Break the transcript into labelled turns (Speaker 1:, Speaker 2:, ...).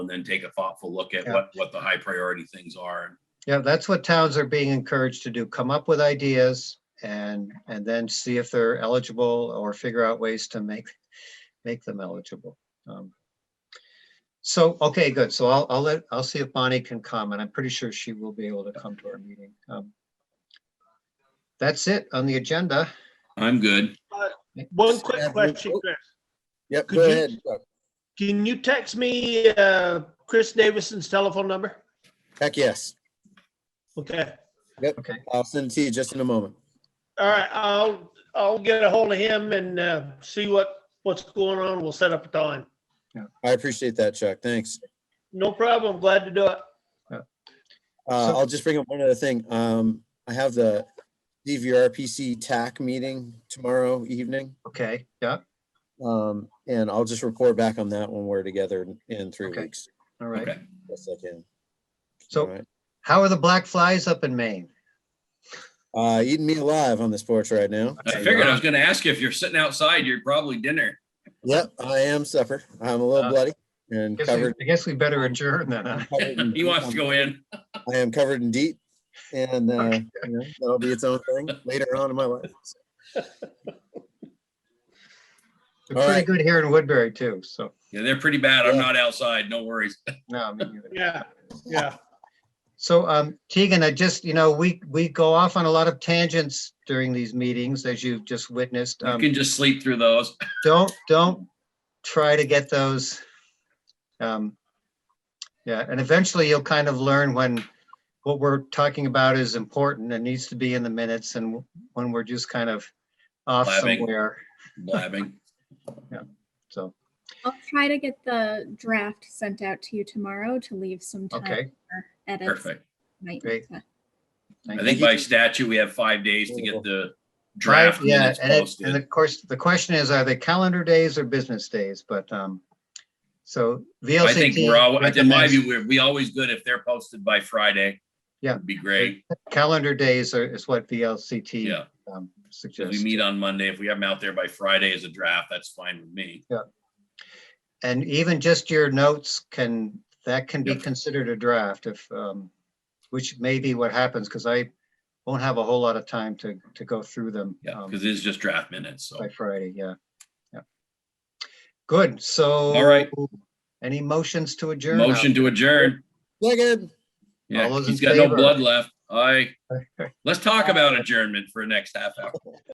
Speaker 1: and then take a thoughtful look at
Speaker 2: Yeah.
Speaker 1: what, what the high priority things are.
Speaker 2: Yeah, that's what towns are being encouraged to do. Come up with ideas and, and then see if they're eligible or figure out ways to make, make them eligible. Um, So, okay, good. So I'll, I'll let, I'll see if Bonnie can come and I'm pretty sure she will be able to come to our meeting. Um, That's it on the agenda.
Speaker 1: I'm good.
Speaker 3: One quick
Speaker 4: Have we-
Speaker 3: question, Chris.
Speaker 4: Yep,
Speaker 3: Could
Speaker 4: go
Speaker 3: you-
Speaker 4: ahead. Chuck.
Speaker 3: Can you text me uh, Chris Davison's telephone number?
Speaker 4: Heck, yes.
Speaker 3: Okay.
Speaker 4: I'll send it to you just in a moment.
Speaker 3: All right. I'll I'll get a hold of him and uh, see what what's going on. We'll set up a time.
Speaker 4: I appreciate that, Chuck. Thanks.
Speaker 3: No problem. Glad to do it.
Speaker 4: Uh,
Speaker 2: So-
Speaker 4: I'll just bring up one other thing. Um, I have the DVRPC TAC meeting tomorrow evening.
Speaker 2: Okay, yeah,
Speaker 4: Um, and I'll just report back on that when we're together in- in three
Speaker 2: Okay.
Speaker 4: weeks.
Speaker 2: all right.
Speaker 1: Okay.
Speaker 4: Yes, I can. All
Speaker 2: So
Speaker 4: right.
Speaker 2: how are the black flies up in Maine?
Speaker 4: Uh, eating me alive on this porch right now.
Speaker 1: I figured I was gonna ask you, if you're sitting outside, you're probably dinner.
Speaker 4: Yep, I am supper. I'm a
Speaker 2: Uh,
Speaker 4: little bloody and
Speaker 2: Guess we-
Speaker 4: covered.
Speaker 2: I guess we better adjourn then. huh?
Speaker 4: covered in
Speaker 1: He wants to
Speaker 4: deep.
Speaker 1: go in.
Speaker 4: I am covered in deep and, uh, you know, that'll be its own thing later on in my life.
Speaker 2: They're
Speaker 4: All
Speaker 2: pretty
Speaker 4: right.
Speaker 2: good here in Woodbury too, so,
Speaker 1: Yeah, they're pretty bad. I'm
Speaker 4: Yeah.
Speaker 1: not outside. No worries.
Speaker 2: no, me neither.
Speaker 3: Yeah. Yeah.
Speaker 2: So, um, Tegan, I just, you know, we, we go off on a lot of tangents during these meetings, as you've just witnessed.
Speaker 1: You
Speaker 2: Um,
Speaker 1: can just sleep through those.
Speaker 2: don't, don't try to get those. Um, yeah, and eventually you'll kind of learn when what we're talking about is important and needs to be in the minutes and when we're just kind of off
Speaker 1: Blabbing.
Speaker 2: somewhere,
Speaker 1: Blabbing.
Speaker 2: so,
Speaker 5: I'll try to get the draft sent out to you tomorrow to leave some time.
Speaker 2: okay.
Speaker 5: for Edits.
Speaker 1: Perfect.
Speaker 5: Might
Speaker 2: Great.
Speaker 5: to-
Speaker 1: I think by statute, we have five days to get the
Speaker 2: Right,
Speaker 1: draft
Speaker 2: yeah,
Speaker 1: minutes
Speaker 2: and it, and
Speaker 1: posted.
Speaker 2: of course, the question is, are they calendar days or business days? But, um, so VLCT.
Speaker 1: I think we're all, in my
Speaker 2: recommends
Speaker 1: view, we're, we always good if they're posted by Friday.
Speaker 2: Yeah.
Speaker 1: Would Be great.
Speaker 2: Calendar days are, is what VLCT,
Speaker 1: Yeah.
Speaker 2: um,
Speaker 1: So we
Speaker 2: suggests.
Speaker 1: meet on Monday. If we have them out there by Friday as a draft, that's fine with me.
Speaker 2: And even just your notes can, that can be
Speaker 1: Yep.
Speaker 2: considered a draft if, um, which may be what happens, because I won't have a whole lot of time to, to go through them.
Speaker 1: Yeah,
Speaker 2: um,
Speaker 1: because it is just draft minutes. So
Speaker 2: By Friday, yeah, yeah. Good, so.
Speaker 1: right.
Speaker 2: Any motions to adjourn? Oh, out
Speaker 1: motion to adjourn.
Speaker 4: Second.
Speaker 1: Yeah,
Speaker 2: those
Speaker 1: he's
Speaker 2: in
Speaker 1: got no
Speaker 2: favor?
Speaker 1: blood left. Aye.
Speaker 2: there?
Speaker 1: Let's talk about adjournment for the next half hour.